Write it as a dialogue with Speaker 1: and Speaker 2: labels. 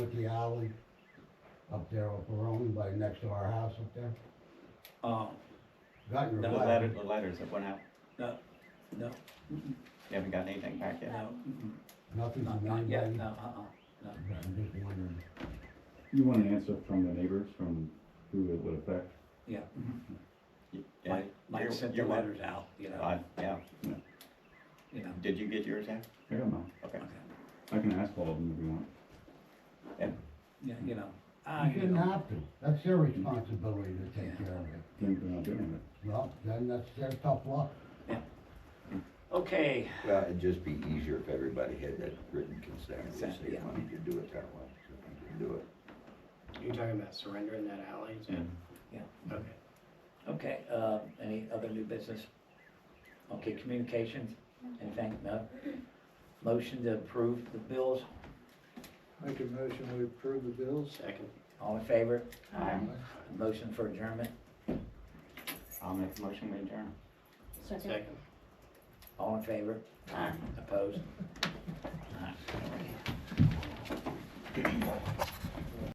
Speaker 1: empty alley up there off Verone by next to our house up there.
Speaker 2: Um,
Speaker 1: Got your
Speaker 2: No,
Speaker 3: The
Speaker 2: Wow.
Speaker 3: letter,
Speaker 1: letter.
Speaker 3: the letters that went out,
Speaker 2: no, no, mm-mm,
Speaker 3: you haven't gotten anything back yet?
Speaker 2: no, mm-mm,
Speaker 1: Nothing
Speaker 2: not,
Speaker 1: from
Speaker 2: not yet,
Speaker 1: anybody.
Speaker 2: no, uh-uh, no.
Speaker 1: I'm just wondering.
Speaker 4: You want an answer from the neighbors, from who it would affect?
Speaker 2: Yeah. mhm.
Speaker 3: Yeah,
Speaker 2: Mike, Mike
Speaker 3: you're-
Speaker 2: sent the
Speaker 3: you're-
Speaker 2: letters out, you know,
Speaker 3: I- Yeah,
Speaker 2: you know.
Speaker 3: did you get yours out?
Speaker 4: I don't know.
Speaker 3: Okay.
Speaker 2: okay.
Speaker 4: I can ask all of them if you want.
Speaker 2: Yeah, you know. I,
Speaker 1: You
Speaker 2: you
Speaker 1: didn't
Speaker 2: know,
Speaker 1: have to. That's their responsibility to take care of it.
Speaker 4: Then they're not doing it.
Speaker 1: Well, then that's their tough luck.
Speaker 2: Okay,
Speaker 5: Well, it'd just be easier if everybody had that written consent, we
Speaker 2: Consent,
Speaker 5: say,
Speaker 2: yeah.
Speaker 5: why don't you do it that way, so we can do it.
Speaker 6: You're talking about surrendering that alley? is it? Okay.
Speaker 2: okay, uh, any other new business? Okay, communications, anything, no? Motion to approve the bills,
Speaker 7: Make a motion, we approve the bills.
Speaker 6: Second.
Speaker 2: all in favor?
Speaker 3: Aye.
Speaker 2: Motion for adjournment,
Speaker 3: I'll make a motion, we adjourn.
Speaker 6: Second.
Speaker 2: all in favor? Aye. Opposed?